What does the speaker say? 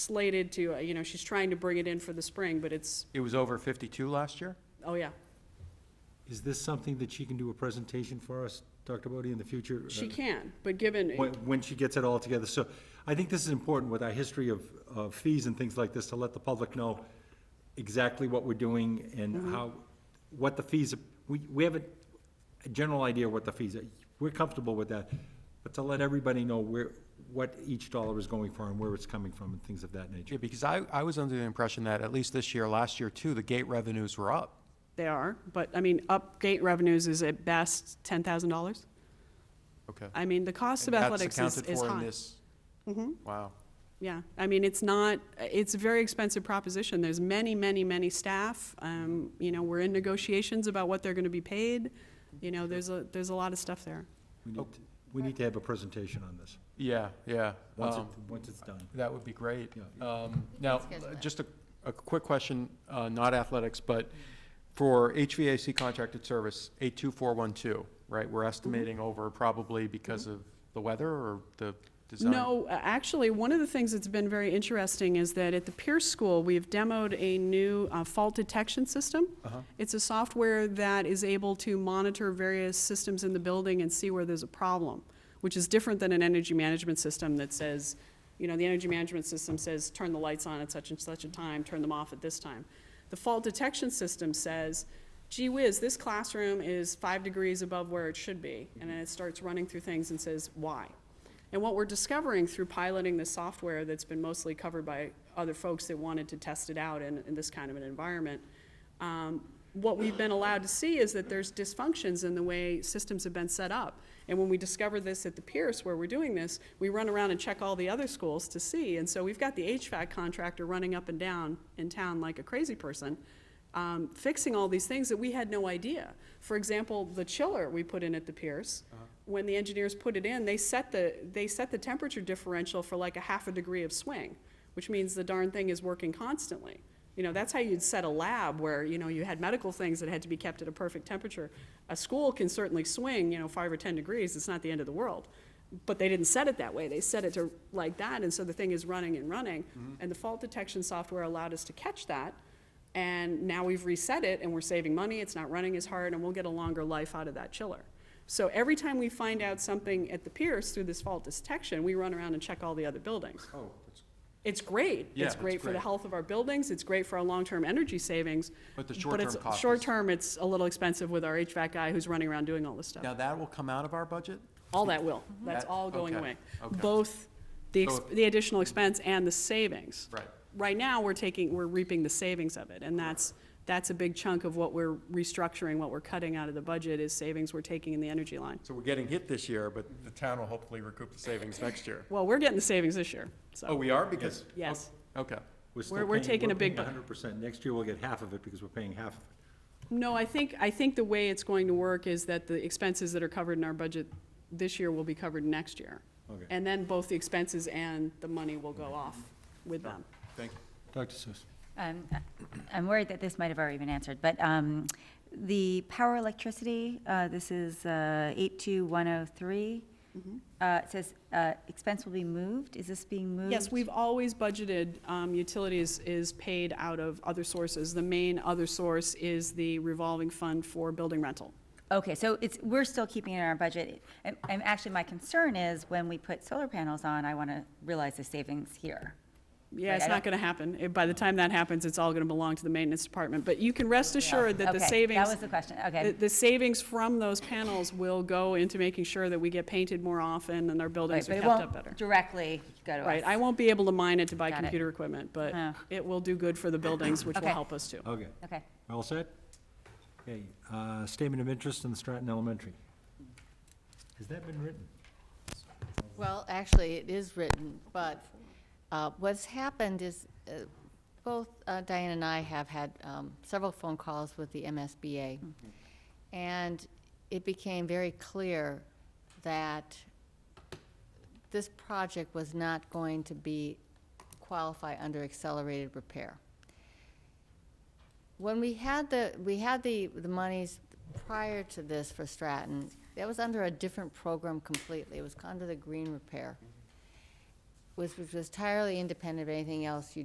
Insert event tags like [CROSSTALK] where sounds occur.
slated to, uh, you know, she's trying to bring it in for the spring, but it's, It was over 52 last year? oh yeah. Is this something that she can do a presentation for us, Dr. Bodie, in the future? She Uh, can, but given, When, when she gets it all together. So I think this is important with our history of, of fees and things like this, to let the public know exactly what we're doing Mm-hmm. and how, what the fees, we, we have a, a general idea what the fees are. We're comfortable with that, but to let everybody know where, what each dollar is going for and where it's coming from and things of that nature. Yeah, because I, I was under the impression that at least this year, last year too, the gate revenues were up. they are, but I mean, upgate revenues is at best ten thousand dollars. Okay. I mean, the cost of athletics is, is high. Mm-hmm. Wow. Yeah, I mean, it's not, it's a very expensive proposition. There's many, many, many staff. Um, you know, we're in negotiations about what they're gonna be paid. You know, there's a, there's a lot of stuff there. We need, to- we need to have a presentation on this, Yeah, yeah. once it, Um, once it's done. That would be great. Yeah. Um, Now, schedule uh, that. just a, a quick question, uh, not athletics, but for HVAC contracted service, 82412, right? Mm-hmm. We're estimating over probably because of the weather or the design? No, a- actually, one of the things that's been very interesting is that at the Pierce School, we've demoed a new uh, fault detection system. It's a software that is able to monitor various systems in the building and see where there's a problem, which is different than an energy management system that says, you know, the energy management system says, turn the lights on at such and such a time, turn them off at this time. The fault detection system says, gee whiz, this classroom is five degrees above where it should be. And then it starts running through things and says, why? And what we're discovering through piloting the software that's been mostly covered by other folks that wanted to test it out in, in this kind of an environment, um, what we've been allowed to see is that there's dysfunctions in the way systems have been set up. And when we discover this at the Pierce where we're doing this, we run around and check all the other schools to see. And so we've got the HVAC contractor running up and down in town like a crazy person, um, fixing all these things that we had no idea. For example, the chiller we put in at the Pierce, when the engineers put it in, they set the, they set the temperature differential for like a half a degree of swing, which means the darn thing is working constantly. You know, that's how you'd set a lab where, you know, you had medical things that had to be kept at a perfect temperature. A school can certainly swing, you know, five or 10 degrees, it's not the end of the world. But they didn't set it that way, they set it to like that, and so the thing is running and running. And the fault detection software allowed us to catch that, and now we've reset it, and we're saving money, it's not running as hard, and we'll get a longer life out of that chiller. So every time we find out something at the Pierce through this fault detection, we run around and check all the other buildings. Oh, that's- It's great. Yeah, It's it's great for the great. health of our buildings, it's great for our long-term energy savings. But the it's- short-term cost is- Short-term, it's a little expensive with our HVAC guy who's running around doing all this stuff. Now, that will come out of our budget? All that will, that's Mm-hmm. That- all going okay, away. okay. Both the, So ex- the additional expense and the savings. Right. Right now, we're taking, we're reaping the savings of it, and that's, that's a big chunk of what we're restructuring, what we're cutting out of the budget is savings we're taking in the energy line. So we're getting hit this year, but the town will hopefully recoup the savings [LAUGHS] next year. Well, we're getting the savings this year, Oh, so, we are? Because, Oh, yes. okay. still We're- we're paying- taking a big bu- We're paying hundred percent. Next year, we'll get half of it because we're paying half of it. No, I think, I think the way it's going to work is that the expenses that are covered in our budget this year will be covered next year. Okay. And then both the expenses and the money will go off with them. Thank you. Dr. Seuss. Um, I'm worried that this might have already been answered, but um, the power electricity, uh, this is uh, 82103. Mm-hmm. Uh, It says uh, expense will be moved. Is this being moved? Yes, we've always budgeted, um, utilities is paid out of other sources. The main other source is the revolving fund for building rental. Okay, so it's, we're still keeping it in our budget. And and actually, my concern is when we put solar panels on, I want to realize the savings here. Yeah, Right, it's I not gonna happen. Eh, By the time that happens, it's all gonna belong to the maintenance department, but you can rest assured that the Okay, savings. That was the question, The, okay. the savings from those panels will go into making sure that we get painted more often and our Right, buildings are But it kept up better. won't directly go to us. Right, I won't be able to mine it to buy Got it. computer equipment, but Yeah. it will do good for the buildings, which will Okay. help us too. Okay, Okay. all set? Okay, uh, statement of interest in the Stratton Elementary. Has that been written? Well, actually, it is written, but uh, what's happened is, uh, both uh, Diane and I have had um, several phone calls with the MSBA, and it became very clear that this project was not going to be, qualify under accelerated repair. When we had the, we had the, the monies prior to this for Stratton, that was under a different program completely. It was under the green repair. which was entirely independent of anything else you